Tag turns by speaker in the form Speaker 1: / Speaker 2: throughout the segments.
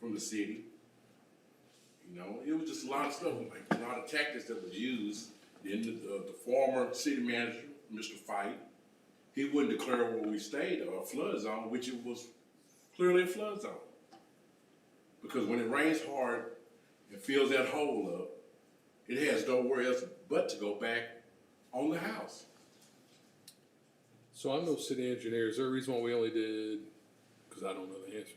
Speaker 1: from the city. You know, it was just a lot of stuff, like a lot of tactics that was used. Then the, the, the former city manager, Mr. Fight, he wouldn't declare where we stayed a flood zone, which it was clearly a flood zone. Because when it rains hard and fills that hole up, it has nowhere else but to go back on the house.
Speaker 2: So I'm no city engineer. Is there a reason why we only did, because I don't know the answer.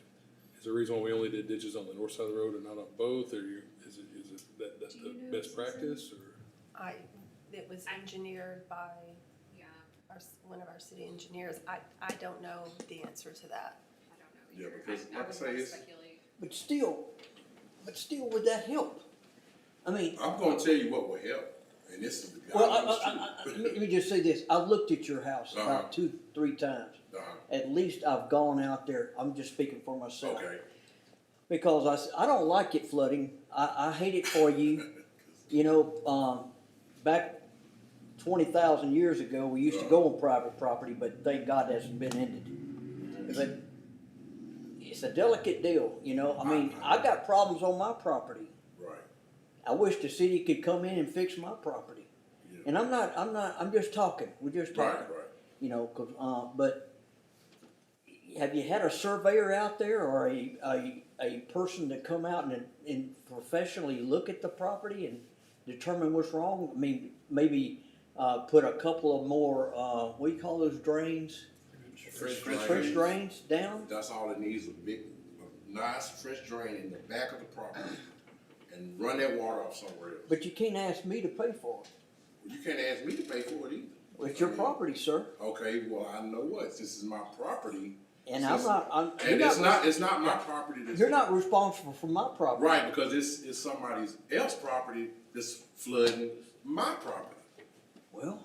Speaker 2: Is there a reason why we only did ditches on the north side of the road and not on both, or you, is it, is it, that, that's
Speaker 3: Do
Speaker 2: the
Speaker 3: you know
Speaker 2: best
Speaker 3: the reason?
Speaker 2: practice, or?
Speaker 3: I, it was engineered by
Speaker 4: Yeah,
Speaker 3: our, s- one of our city engineers. I, I don't know the answer to that.
Speaker 4: I don't know
Speaker 1: Yeah,
Speaker 4: either.
Speaker 1: because
Speaker 4: I- I
Speaker 1: like I
Speaker 4: would
Speaker 1: say,
Speaker 4: not
Speaker 1: it's-
Speaker 4: speculate.
Speaker 5: But still, but still, would that help? I mean,
Speaker 1: I'm gonna tell you what will help, and this is the
Speaker 5: well,
Speaker 1: guy.
Speaker 5: I, I, I, I, let me- let me just say this, I've looked at your house
Speaker 1: Uh-huh.
Speaker 5: about two, three times.
Speaker 1: Uh-huh.
Speaker 5: At least I've gone out there, I'm just speaking for myself.
Speaker 1: Okay,
Speaker 5: Because I, s- I don't like it flooding, I, I hate it for you, you know, um, back twenty thousand years ago, we used to go on private property, but thank God that's been ended. But it's a delicate deal, you know, I mean, I got problems on my property.
Speaker 1: right,
Speaker 5: I wish the city could come in and fix my property.
Speaker 1: Yeah.
Speaker 5: And I'm not, I'm not, I'm just talking, we're just
Speaker 1: right,
Speaker 5: talking,
Speaker 1: right.
Speaker 5: you know, 'cause, uh, but have you had a surveyor out there or a, a, a person to come out and, and professionally look at the property and determine what's wrong? I mean, maybe, uh, put a couple of more, uh, what do you call those drains?
Speaker 1: Fresh
Speaker 5: Trench
Speaker 1: drain.
Speaker 5: drains down?
Speaker 1: That's all it needs, a big, a nice fresh drain in the back of the property and run that water off somewhere else.
Speaker 5: But you can't ask me to pay for it.
Speaker 1: You can't ask me to pay for it either.
Speaker 5: It's your
Speaker 1: I mean,
Speaker 5: property, sir,
Speaker 1: Okay, well, I know what, this is my property.
Speaker 5: and I'm
Speaker 1: Since-
Speaker 5: not, I'm. you're
Speaker 1: And it's
Speaker 5: re-
Speaker 1: not, it's not my property that's.
Speaker 5: You're not responsible for my property.
Speaker 1: Right, because it's, it's somebody else's property that's flooding my property,
Speaker 5: Well,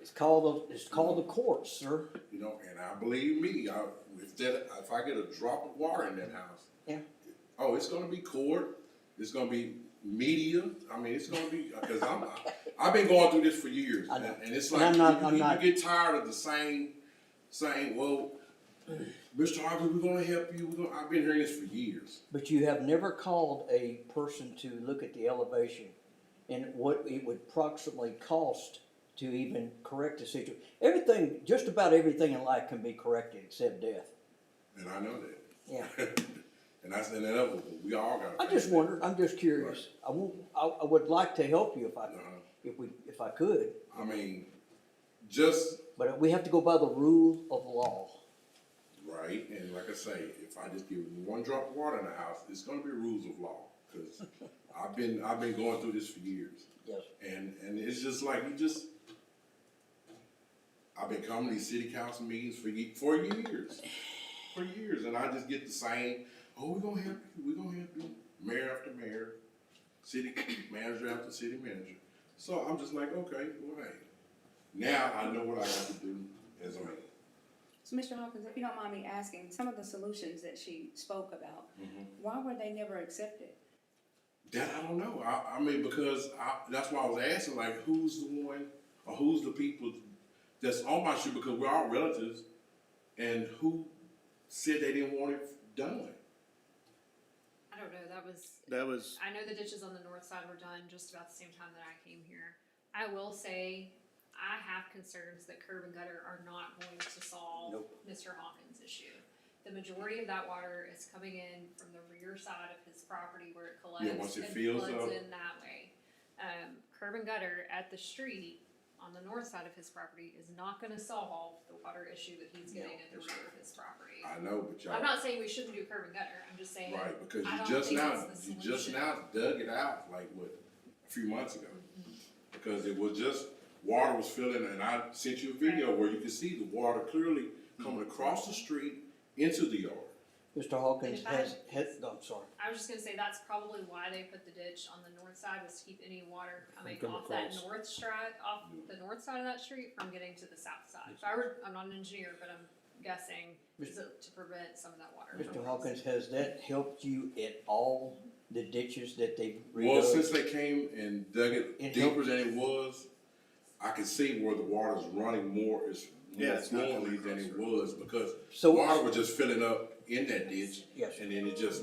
Speaker 5: it's called, the- it's called the courts, sir.
Speaker 1: you know, and I believe me, I, if that, if I get a drop of water in that house,
Speaker 5: Yeah.
Speaker 1: oh, it's gonna be court, it's gonna be media, I mean, it's gonna be, uh, cause I'm, I- I've been going through this for years,
Speaker 5: I
Speaker 1: and
Speaker 5: know.
Speaker 1: and it's
Speaker 5: And
Speaker 1: like,
Speaker 5: I'm
Speaker 1: you
Speaker 5: not- I'm not-
Speaker 1: you get tired of the same, same, well, Mr. Harvey, we're gonna help you, we're gonna, I've been hearing this for years.
Speaker 5: But you have never called a person to look at the elevation and what it would approximately cost to even correct the situation. Everything, just about everything in life can be corrected except death.
Speaker 1: And I know that.
Speaker 5: Yeah.
Speaker 1: And that's inevitable. We all got.
Speaker 5: I just wondered, I'm just curious. I won't, I, I would like to help you if I, if we, if I could,
Speaker 1: Uh, I mean, just
Speaker 5: but we have to go by the rule of law.
Speaker 1: right. And like I say, if I just give one drop of water in the house, it's going to be rules of law because I've been I've been going through this for years.
Speaker 5: Yes.
Speaker 1: And and it's just like you just. I've been coming to these city council meetings for ye- for years, for years, and I just get the same. Oh, we're gonna help you. We're gonna help you. Mayor after mayor, city manager after city manager. So I'm just like, okay, well, hey, now I know what I have to do as a mayor.
Speaker 4: So Mr. Hawkins, if you don't mind me asking, some of the solutions that she spoke about, why were they never accepted?
Speaker 1: That I don't know. I, I mean, because I, that's why I was asking, like, who's the one or who's the people that's on my shoe because we're all relatives, and who said they didn't want it done?
Speaker 6: I don't know. That was.
Speaker 7: That was
Speaker 6: I know the ditches on the north side were done just about the same time that I came here. I will say, I have concerns that curb and gutter are not going to solve Mr. Hawkins' issue. The majority of that water is coming in from the rear side of his property where it collects
Speaker 1: Yeah, once it
Speaker 6: and
Speaker 1: fills up.
Speaker 6: floods in that way. Um, curb and gutter at the street on the north side of his property is not going to solve the water issue that he's getting at the rear of his property.
Speaker 1: I know, but y'all
Speaker 6: I'm not saying we shouldn't do curb and gutter. I'm just saying
Speaker 1: right because
Speaker 6: I
Speaker 1: you
Speaker 6: don't
Speaker 1: just
Speaker 6: think
Speaker 1: now
Speaker 6: it's the
Speaker 1: you just
Speaker 6: solution.
Speaker 1: now dug it out like what a few months ago
Speaker 6: Mm-hmm.
Speaker 1: because it was just water was filling, and I sent you a video where you could see the water clearly coming across the street into the yard.
Speaker 5: Mr. Hawkins
Speaker 6: If I-
Speaker 5: has, has, no, I'm sorry.
Speaker 6: I was just gonna say that's probably why they put the ditch on the north side was to keep any water coming
Speaker 2: From
Speaker 6: off that
Speaker 2: across.
Speaker 6: north stride, off
Speaker 1: Mm.
Speaker 6: the north side of that street from getting to the south side. If I were, I'm not an engineer, but I'm guessing is it to prevent some of that water.
Speaker 5: Mr.
Speaker 6: from-
Speaker 5: Hawkins, has that helped you at all, the ditches that they've
Speaker 1: Well, since
Speaker 5: redug?
Speaker 1: they came and dug it
Speaker 5: It
Speaker 1: deeper than it was, I can see where the water's running more, is
Speaker 7: Yeah,
Speaker 1: more
Speaker 7: it's not coming
Speaker 1: fluently than
Speaker 7: across
Speaker 1: it
Speaker 7: the-
Speaker 1: was, because
Speaker 5: So-
Speaker 1: water was just filling up in that ditch.
Speaker 5: Yes.
Speaker 1: And then it just